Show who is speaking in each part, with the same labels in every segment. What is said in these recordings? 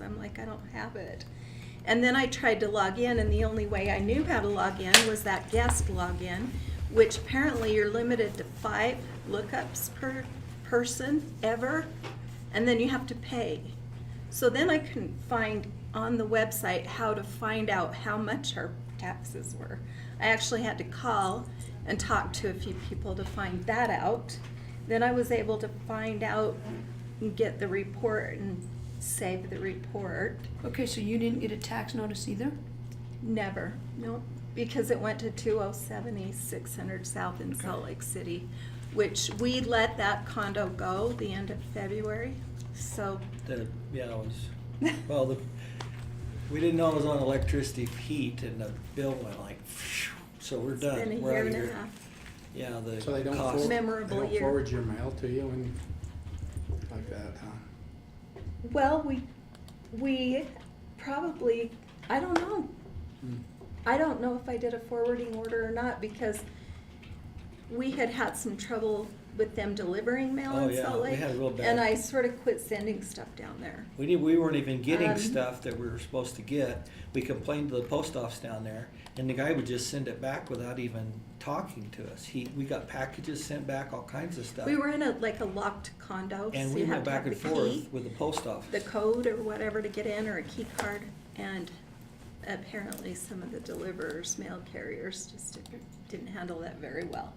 Speaker 1: I'm like, I don't have it. And then I tried to log in, and the only way I knew how to log in was that guest login, which apparently you're limited to five lookups per person ever, and then you have to pay. So then I couldn't find on the website how to find out how much our taxes were. I actually had to call and talk to a few people to find that out. Then I was able to find out and get the report and save the report.
Speaker 2: Okay, so you didn't get a tax notice either?
Speaker 1: Never, no, because it went to two oh seven East, six hundred South in Salt Lake City, which we let that condo go the end of February, so.
Speaker 3: The, yeah, it was, well, the, we didn't know it was on electricity heat and the bill went like, phew, so we're
Speaker 1: It's been
Speaker 3: done.
Speaker 1: a
Speaker 3: We're out
Speaker 1: year
Speaker 3: of
Speaker 1: and a
Speaker 3: here.
Speaker 1: half.
Speaker 3: Yeah, the
Speaker 4: So they don't, for-
Speaker 3: cost.
Speaker 4: they
Speaker 1: Memorable
Speaker 4: don't
Speaker 1: year.
Speaker 4: forward your mail to you and like that, huh?
Speaker 1: Well, we, we probably, I don't know,
Speaker 4: Hmm.
Speaker 1: I don't know if I did a forwarding order or not because we had had some trouble with them delivering mail
Speaker 3: Oh,
Speaker 1: in
Speaker 3: yeah,
Speaker 1: Salt
Speaker 3: we
Speaker 1: Lake.
Speaker 3: had real bad-
Speaker 1: And I sort of quit sending stuff down there.
Speaker 3: We did we weren't even getting
Speaker 1: Um,
Speaker 3: stuff that we were supposed to get. We complained to the post office down there and the guy would just send it back without even talking to us. He, we got packages sent back, all kinds of stuff.
Speaker 1: We were in a, like a locked condo, so
Speaker 3: And we
Speaker 1: you
Speaker 3: went
Speaker 1: had to
Speaker 3: back
Speaker 1: have the
Speaker 3: and forth
Speaker 1: key,
Speaker 3: with the post office.
Speaker 1: the code or whatever to get in, or a key card. And apparently some of the deliverers, mail carriers, just didn't- didn't handle that very well.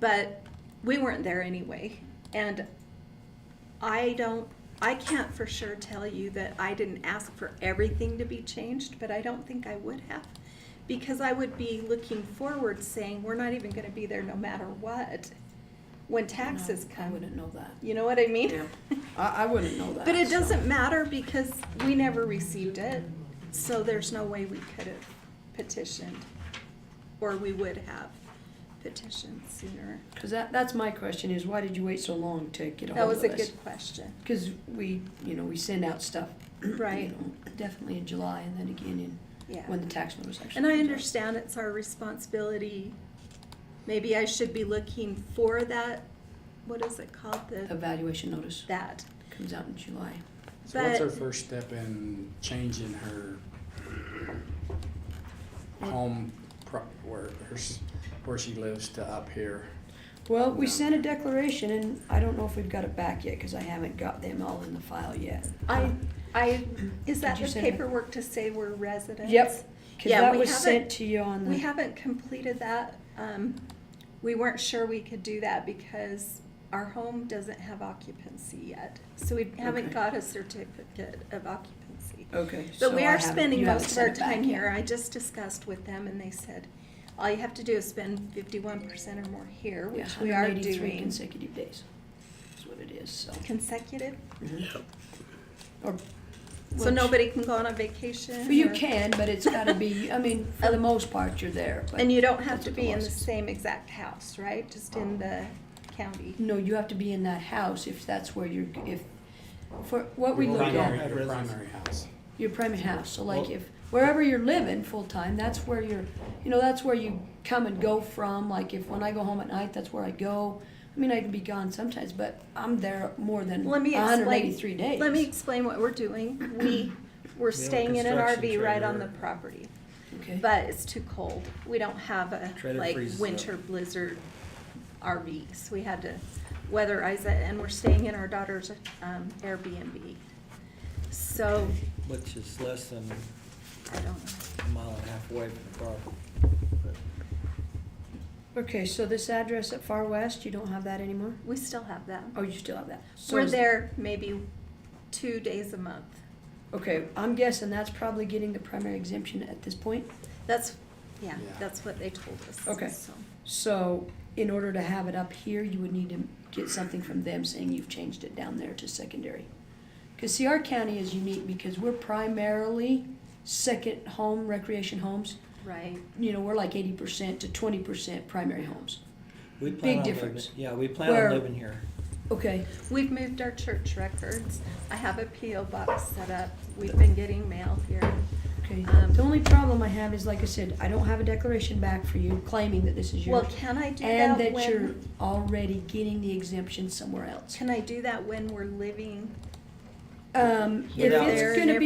Speaker 1: But we weren't there anyway, and I don't, I can't for sure tell you that I didn't ask for everything to be changed, but I don't think I would have. Because I would be looking forward saying, we're not even gonna be there no matter what, when taxes
Speaker 2: No, I
Speaker 1: come.
Speaker 2: wouldn't know that.
Speaker 1: You know what I mean?
Speaker 2: Yeah. I, I wouldn't know that.
Speaker 1: But it
Speaker 2: so-
Speaker 1: doesn't matter because we never received it, so there's no way we could have petitioned. Or we would have petitioned sooner.
Speaker 2: Cause that, that's my question is why did you wait so long to get a
Speaker 1: That
Speaker 2: hold of us?
Speaker 1: was a good question.
Speaker 2: Cause we, you know, we send out stuff. you
Speaker 1: Right.
Speaker 2: know, Definitely in July and then again
Speaker 1: Yeah.
Speaker 2: in, when the tax notice actually.
Speaker 1: And I
Speaker 2: comes out.
Speaker 1: understand it's our responsibility. Maybe I should be looking for that, what is it called, the,
Speaker 2: Evaluation notice
Speaker 1: that.
Speaker 2: comes out in July.
Speaker 4: So what's her
Speaker 1: But-
Speaker 4: first step in changing her home, pro- where, her s- where she lives to up here?
Speaker 2: Well, we
Speaker 4: No.
Speaker 2: sent a declaration and I don't know if we've got it back yet, cause I haven't got them all in the file yet. Um,
Speaker 1: I, I, is that
Speaker 2: Did you
Speaker 1: the
Speaker 2: send it?
Speaker 1: paperwork to say we're residents?
Speaker 2: Yep. Cause
Speaker 1: Yeah,
Speaker 2: that
Speaker 1: we
Speaker 2: was
Speaker 1: haven't-
Speaker 2: sent to you on the.
Speaker 1: We haven't completed that. Um, we weren't sure we could do that because our home doesn't have occupancy yet. So we haven't
Speaker 2: Okay.
Speaker 1: got a certificate of occupancy.
Speaker 2: Okay. so
Speaker 1: But we
Speaker 2: I
Speaker 1: are
Speaker 2: haven't-
Speaker 1: spending
Speaker 2: you haven't
Speaker 1: most of
Speaker 2: sent
Speaker 1: our
Speaker 2: it back
Speaker 1: time
Speaker 2: yet.
Speaker 1: here. I just discussed with them and they said, all you have to do is spend fifty-one percent or more here,
Speaker 2: Yeah,
Speaker 1: which we are
Speaker 2: 183
Speaker 1: doing
Speaker 2: consecutive days. That's what it is. So.
Speaker 1: consecutive.
Speaker 2: Or,
Speaker 1: So
Speaker 2: which-
Speaker 1: nobody can go on a vacation.
Speaker 2: Well, you
Speaker 1: or-
Speaker 2: can, but it's got to be. I mean, for the most part, you're there. But
Speaker 1: Oh. And you don't have
Speaker 2: that's
Speaker 1: to
Speaker 2: what
Speaker 1: be in the
Speaker 2: law says. Oh.
Speaker 1: same exact house, right? Just in the county.
Speaker 2: No, you have to be in that house if that's where you're. If for what we
Speaker 4: Your
Speaker 2: look
Speaker 4: primary-
Speaker 2: at
Speaker 3: at-
Speaker 4: Your primary house.
Speaker 2: your primary house. So like
Speaker 3: Well-
Speaker 2: if wherever you're living full time, that's where you're. You know, that's where you come and go from. Like if when I go home at night, that's where I go. I mean, I can be gone sometimes, but I'm there more than
Speaker 1: Let me explain-
Speaker 2: 183 days.
Speaker 1: Let me explain what we're doing. We, we're
Speaker 3: have a
Speaker 1: staying in an
Speaker 3: construction
Speaker 1: RV right on the
Speaker 3: trailer.
Speaker 1: property,
Speaker 2: Okay.
Speaker 1: but it's too cold. We don't have a,
Speaker 3: Trailer
Speaker 1: like,
Speaker 3: freezes up.
Speaker 1: winter blizzard RV, so we had to weatherize it, and we're staying in our daughter's um, Airbnb. So,
Speaker 3: Which is less than
Speaker 1: I don't know.
Speaker 3: a mile and a half away from the property.
Speaker 2: Okay, so this address at Far West, you don't have that anymore?
Speaker 1: We still have that.
Speaker 2: Oh, you still have that? So
Speaker 1: We're
Speaker 2: is-
Speaker 1: there maybe two days a month.
Speaker 2: Okay, I'm guessing that's probably getting the primary exemption at this point.
Speaker 1: That's, yeah,
Speaker 4: Yeah.
Speaker 1: that's what they told us.
Speaker 2: Okay.
Speaker 1: so.
Speaker 2: So in order to have it up here, you would need to get something from them saying you've changed it down there to secondary. Because see, our county is unique because we're primarily second home, recreation homes.
Speaker 1: Right.
Speaker 2: You know, we're like eighty percent to twenty percent primary homes.
Speaker 3: We plan
Speaker 2: Big
Speaker 3: on living-
Speaker 2: difference.
Speaker 3: Yeah, we plan
Speaker 2: Where-
Speaker 3: on living here.
Speaker 2: Okay,
Speaker 1: We've moved our church records. I have a PO box set up. We've been getting mail here.
Speaker 2: okay.
Speaker 1: Um,
Speaker 2: The only problem I have is, like I said, I don't have a declaration back for you claiming that this is yours.
Speaker 1: Well, can I do
Speaker 2: And
Speaker 1: that
Speaker 2: that you're
Speaker 1: when,
Speaker 2: already getting the exemption somewhere else.
Speaker 1: can I do that when we're living
Speaker 2: Um, if
Speaker 3: Without-
Speaker 2: it's gonna be